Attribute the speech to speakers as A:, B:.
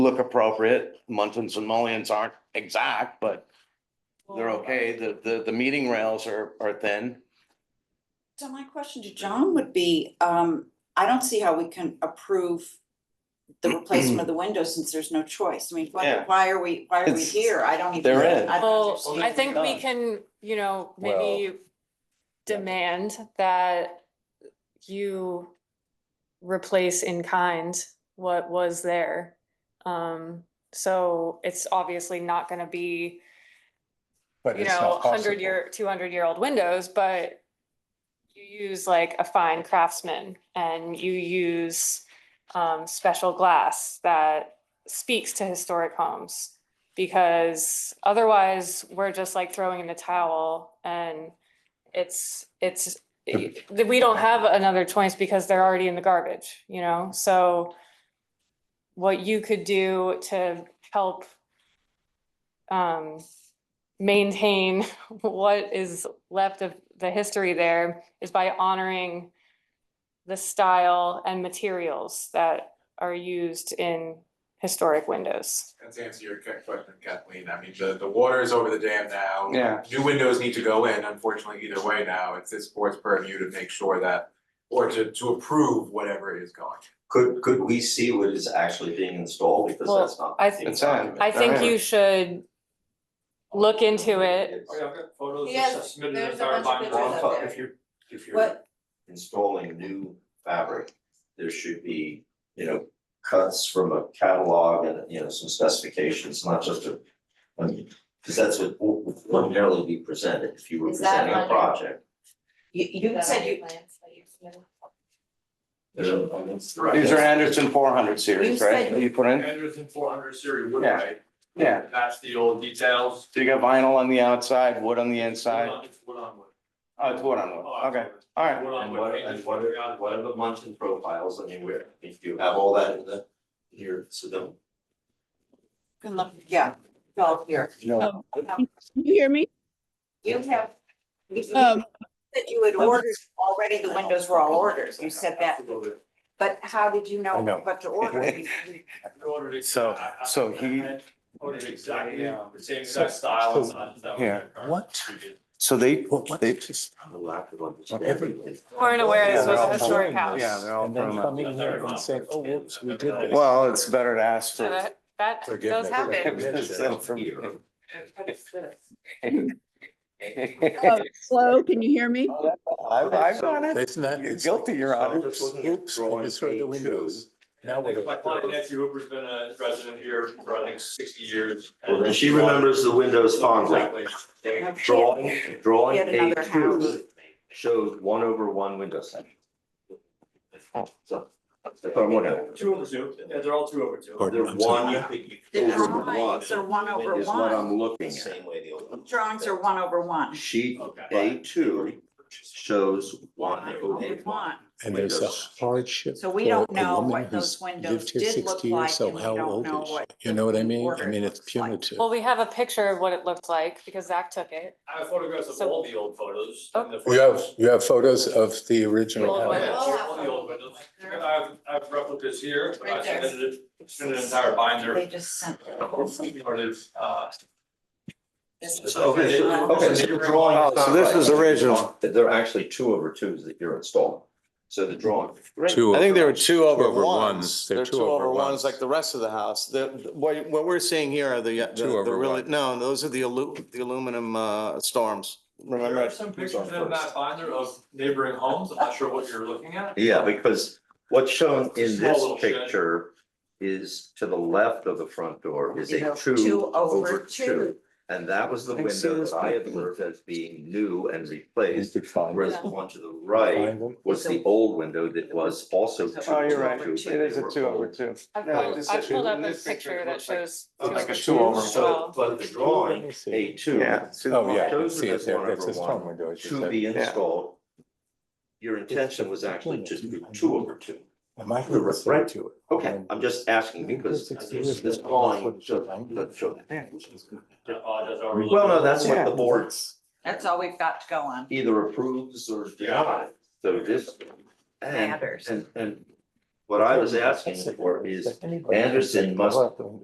A: look appropriate. Muntins and mullions aren't exact, but they're
B: Oh.
A: okay. The, the, the meeting rails are, are thin.
B: So my question to John would be, um, I don't see how we can approve the replacement of the windows since there's no choice. I mean, why,
A: Yeah.
B: why are we, why are we
A: It's-
B: here? I don't even.
A: They're in.
B: I don't
C: Well,
B: understand.
C: I think we
A: Done.
C: can, you know, maybe demand that you replace in kind what was there. Um, so it's obviously not gonna be,
D: But
C: you
D: it's
C: know,
D: not possible.
C: hundred year, two hundred year old windows, but you use like a fine craftsman and you use um, special glass that speaks to historic homes. Because otherwise, we're just like throwing in the towel and it's, it's,
D: The-
C: that we don't have another choice because they're already in the garbage, you know, so what you could do to help um, maintain what is left of the history there is by honoring the style and materials that are used in historic windows.
E: And to answer your que- question, Kathleen, I mean, the, the water is over the dam now.
A: Yeah.
E: New windows need to go in, unfortunately, either way now, it's this board's purview to make sure that, or to, to approve whatever is going.
F: Could, could we see what is actually being installed, because
C: Well,
F: that's not.
C: I th-
A: It's on.
C: I think
A: Alright.
C: you should look into it.
F: It's
G: Oh, yeah, I've got photos
B: He
G: that
B: has-
G: submitted
B: there's
G: as
B: a
G: our
B: bunch of
G: binder.
B: pictures up there.
G: If you're, if you're.
B: What,
F: Installing new fabric, there should be, you know, cuts from a catalog and, you know, some specifications, not just a. I mean, because that's what would ordinarily be presented if you were
H: Is that
F: presenting a
H: under-
F: project.
B: you, you said you,
F: These
A: These are Anderson four hundred
B: You
A: series, right?
B: said-
A: that You put in,
G: Anderson four hundred series wood,
A: Yeah.
G: right?
A: Yeah.
G: That's the old details.
A: so you got vinyl on the outside, wood on the inside.
G: It's wood on wood.
A: Oh, it's wood on
G: Oh,
A: wood. Okay,
G: absolutely.
A: all right.
G: Wood on
F: And
G: wood.
F: what, and what are, what are the Munson profiles, I mean, where, if you have all that in the, here, so don't.
B: can look, yeah, go here.
A: No.
C: Oh.
I: You hear me?
B: You have, you you
I: Um,
B: said you had ordered, already the windows were all orders. You said that,
G: Absolutely.
B: but how did you know
D: I know.
B: what to order? You- you-
G: I ordered it-
D: So-
G: I- I-
D: so he-
G: I Ordered exactly
D: Yeah.
G: the same exact style and
D: so-
G: size that was
D: yeah.
G: in the car.
D: What? So they, they.
F: The lack of
D: Everything.
F: understanding.
C: Weren't aware
D: Yeah,
C: this
D: they're
C: was
D: all
C: a historic
D: throwing
C: house.
D: this. Yeah, they're all throwing up.
G: in here and saying, "Oh, whoops, we did this."
D: Well, it's better to ask
C: So
D: for.
C: that, that does
D: forgiveness.
C: happen.
A: So from-
I: Oh, Hello, can you hear me?
B: Uh,
A: I've, I've done it.
D: Isn't that?
A: You're guilty, Your Honor.
D: Oops, I just heard the windows. Now
G: I
D: we're.
G: think My client Nancy Hooper's been a resident here for, I think, sixty years.
F: Well, then she remembers the windows fondly.
G: Exactly.
F: Drawing, drawing
B: Yet another
F: page
B: house.
F: two shows one over one window section. So, that's what I'm looking at.
G: Two over two, yeah, they're all two over two.
F: There's one over one.
B: Drawings are one over
F: Is what
B: one.
F: I'm looking at.
B: Drawings are one over one.
F: Sheet
G: Okay.
F: A two shows one over
B: Over
F: one.
B: one.
J: And there's a
F: Windows.
J: hardship
B: So
J: for
B: we
J: a
B: don't know
J: woman
B: what those
J: who's
B: windows
J: lived here
B: did look
J: sixty years,
B: like,
J: so
B: and we
J: how
B: don't
J: old
B: know
J: is
B: what
J: she? You know what I
B: the
J: mean? I
B: order
J: mean, it's
B: looks like.
J: punitive.
C: Well, we have a picture of what it looked like because Zach took it.
G: I have photographs of
C: So-
G: all the old photos.
C: Oh.
G: and the
J: You have,
G: photos-
J: you have photos of the original
C: Well,
G: Oh,
J: house.
G: yeah,
B: We'll have
G: all the old windows. I
B: them.
G: have, I have replicas here, but I
B: Right there.
G: submitted it, submitted an entire binder.
B: They just sent.
G: Started, uh,
F: Okay, so, okay, so your drawing.
A: Oh, so this is original.
F: There are actually two over twos that you're installing. So the drawing.
J: Two
A: I think
J: over-
A: there were two over
J: two over
A: ones.
J: ones. They're
A: There are
J: two over ones.
A: Like the rest of the house. The, what, what we're seeing here are the, uh, the
J: Two
A: the
J: over
A: really,
J: one.
A: no, those are the alu, the aluminum, uh, storms.
G: there
A: Remember?
G: are
A: I-
G: some
F: Who's
G: pictures
F: on
G: in that
F: first?
G: binder of neighboring homes. I'm not sure what you're looking at.
F: Yeah, because what's shown in
G: Small
F: this
G: little shed.
F: picture is to the left of the front door is a
B: Two
F: two
B: over
F: over
B: two.
F: two. And that was the
D: I think so,
F: window
D: that's
F: that I
D: not-
F: observed as being new and replaced,
D: could find.
F: whereas the one to the right was the old window that was also two
A: Oh, you're
F: over
A: right.
F: two.
A: It is a two over two.
C: I
A: Yeah,
C: pulled,
A: this
C: I
A: is-
C: pulled up a
A: this
C: picture that
A: looks like-
C: shows.
A: looks like a
C: two
A: two
C: over
A: over
C: as
A: one.
F: So,
C: well.
F: but the
D: Let
F: drawing,
D: me see.
F: A two.
A: Yeah. So-
D: Oh, yeah, I can
F: Those
D: see
F: are
D: it
F: the
D: there.
F: one
D: That's
F: over
D: a storm
F: one.
D: window. as you
F: To
D: said.
F: be installed, your intention was actually just to do two over two.
D: Am I going to refer to it?
F: Okay, I'm just asking because this this drawing shows, doesn't show that.
G: I apologize. I overlooked
F: Well,
G: it.
F: no, that's what the board
B: That's all we've got to go on.
F: either approves or denies, so this. And,
B: Matters.
F: and, and what I was asking for is Anderson must